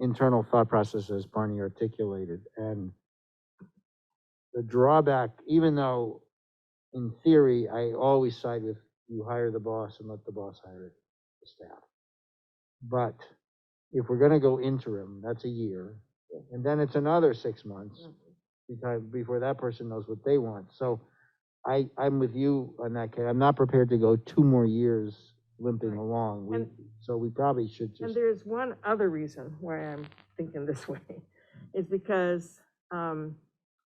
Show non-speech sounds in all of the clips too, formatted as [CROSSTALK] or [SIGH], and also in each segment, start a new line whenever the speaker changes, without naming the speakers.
internal thought process as Barney articulated. And the drawback, even though in theory, I always side with you hire the boss and let the boss hire the staff. But if we're gonna go interim, that's a year, and then it's another six months because, before that person knows what they want. So I, I'm with you on that, Kate. I'm not prepared to go two more years limping
Right.
along. We-
And-
So we probably should
And
just,
there's one other reason why I'm thinking this [LAUGHS] way, is because um,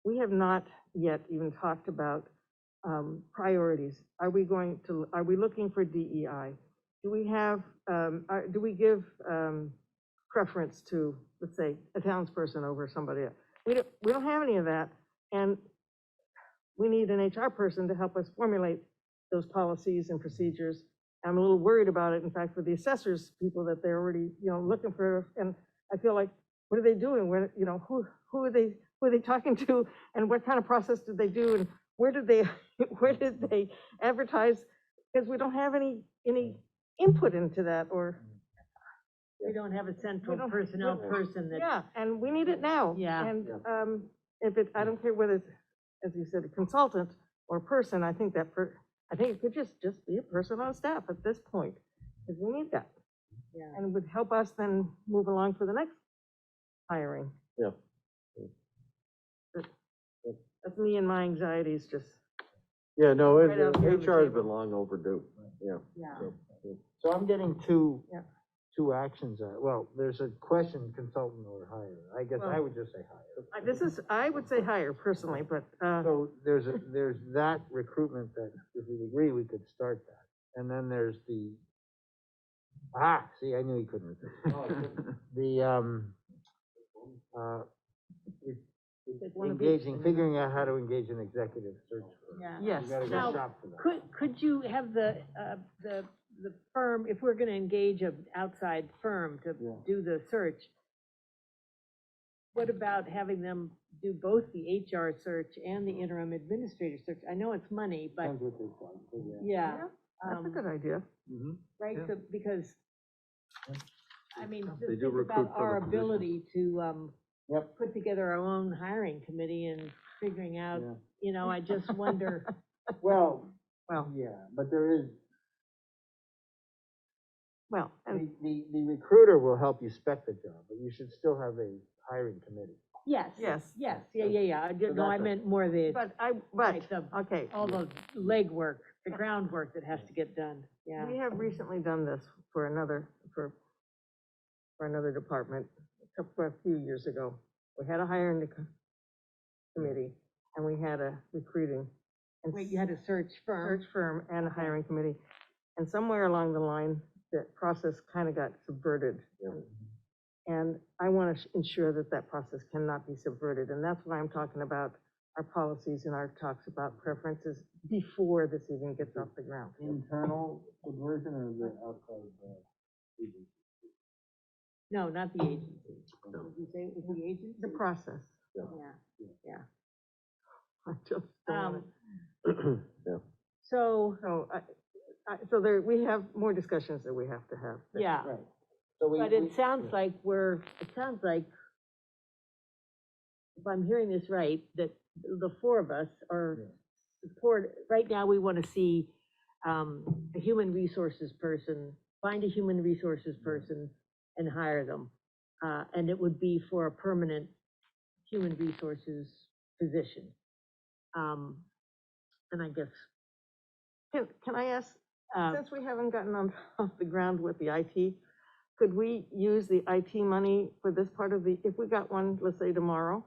we have not yet even talked about um, priorities. Are we going to, are we looking for DEI? Do we have, um, are- do we give um, preference to, let's say, a townsperson over somebody else? We don't, we don't have any of that, and we need an HR person to help us formulate those policies and procedures. I'm a little worried about it, in fact, with the assessors, people that they're already, you know, looking for, and I feel like, what are they doing? Where, you know, who, who are they, who are they talking to? And what kind of process did they do? And where did they, [LAUGHS] where did they advertise? Because we don't have any, any input into that, or,
We don't have a central
don't-
personnel
we don't-
person that,
yeah, and we need it now.
Yeah.
And, um, if it, I don't care whether, it's, as you said, a consultant or a person, I think that per, I think it could just, just be a person on staff at this point, because we need that.
Yeah.
and would help us then move along for the next hiring.
Yeah.
But That's me and my anxieties, just,
Yeah, no, it-
Right out here on the
HR has
table.
been long overdue, yeah.
yeah.
so I'm getting two,
Yeah.
two actions. out- Well, there's a question, consultant or hire. I guess I
Well-
would just say hire.
I- this is, I would say hire personally, but, uh,
So there's, a there's that recruitment that, if we agree, we could start that. And then there's the, ah, see, I knew he couldn't. The, um, uh, it-
Like one of each.
engaging, figuring out how to engage an executive search. firm.
Yeah.
You
yes.
gotta go
Now,
shop for that.
Could, could you have the, uh, the, the firm, if we're gonna engage an outside firm to
Yeah.
do the search, what about having them do both the HR search and the interim administrator search? I know it's money, but,
Depends what they want, but yeah.
yeah.
Yeah, That's a
um,
good idea.
Mm-hmm.
Mhm.
Right,
Yeah.
so, because, I mean,
They
just
do
think
recruit
about
for
our
the position.
ability to, um,
Yep.
put together our own hiring committee and figuring out,
Yeah.
you know, I just wonder,
Well,
Well,
yeah, but there is,
well,
the,
and,
Oh.
the, the recruiter will help you spec the job, but you should still have a hiring committee.
yes.
Yes.
Yes, yeah, yeah, yeah, I
So
did, no, I
that's a-
meant more the,
but I, but,
like, the,
okay,
all the legwork, the groundwork that has to get done, yeah.
we have recently done this for another, for, for another department, a couple, a few years ago. We had a hiring co- committee, and we had a recruiting. and
Wait, you had a search
search firm
firm?
and a hiring committee. And somewhere along the line, that process kind of got subverted.
Yeah.
And I want to ensure that that process cannot be subverted, and that's why I'm talking about our policies and our talks about preferences before this even gets off the ground.
Mm-hmm.
Internal subversion or the outside, uh, agency?
No, not the agency.
No.
Did you say it was the agency?
The process.
Yeah,
[LAUGHS] I just don't want
um,
it.
Yeah.
so,
So, I, I, so there, we have more discussions that we have to have.
yeah.
Right. So we,
But
we-
it sounds like we're, it sounds like, if I'm hearing this right, that the four of us are
Yeah.
support, right now, we want to see um, a human resources person, find a human resources person and hire them. Uh, And it would be for a permanent human resources position. Um, And I guess,
Can, can I ask,
uh,
Since we haven't gotten on, [LAUGHS] off the ground with the IT, could we use the IT money for this part of the, if we got one, let's say tomorrow?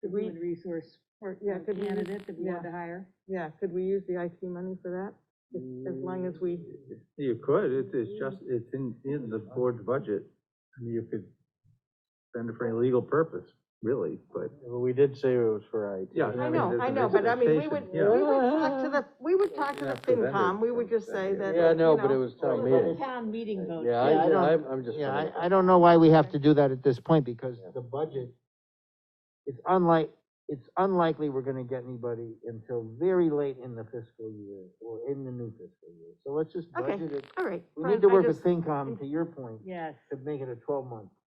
Could we,
human resource for
Yeah,
a
could we-
candidate that we want to hire?
yeah, could we use the IT money for that? As long as we,
You could, it's, it's just, it's in, in the board's budget, I mean, you could spend it for any legal purpose, really, but.
Well, we did say it was for IT.
Yeah.
I
Mm. mean,
know,
there's
I
an
know, but I mean, we would,
expectation,
we
yeah.
would talk to the, we would talk to the
Yeah, for vendors.
FinCom, we would just say that,
Yeah, no,
you
but it
know,
was
Well,
Oh,
town
but
meeting.
Town meeting vote.
Yeah,
Yeah, I don't-
I, I'm, I'm just.
yeah,
trying to-
I, I don't know why we have to do that at this point, because the budget, it's unlike, it's unlikely we're gonna get anybody until very late in the fiscal year, or in the new fiscal year, so let's just
Okay.
budget it.
All right.
We
fine,
need to
I
work with
just-
FinCom, to your point,
Yes.
to make it a twelve-month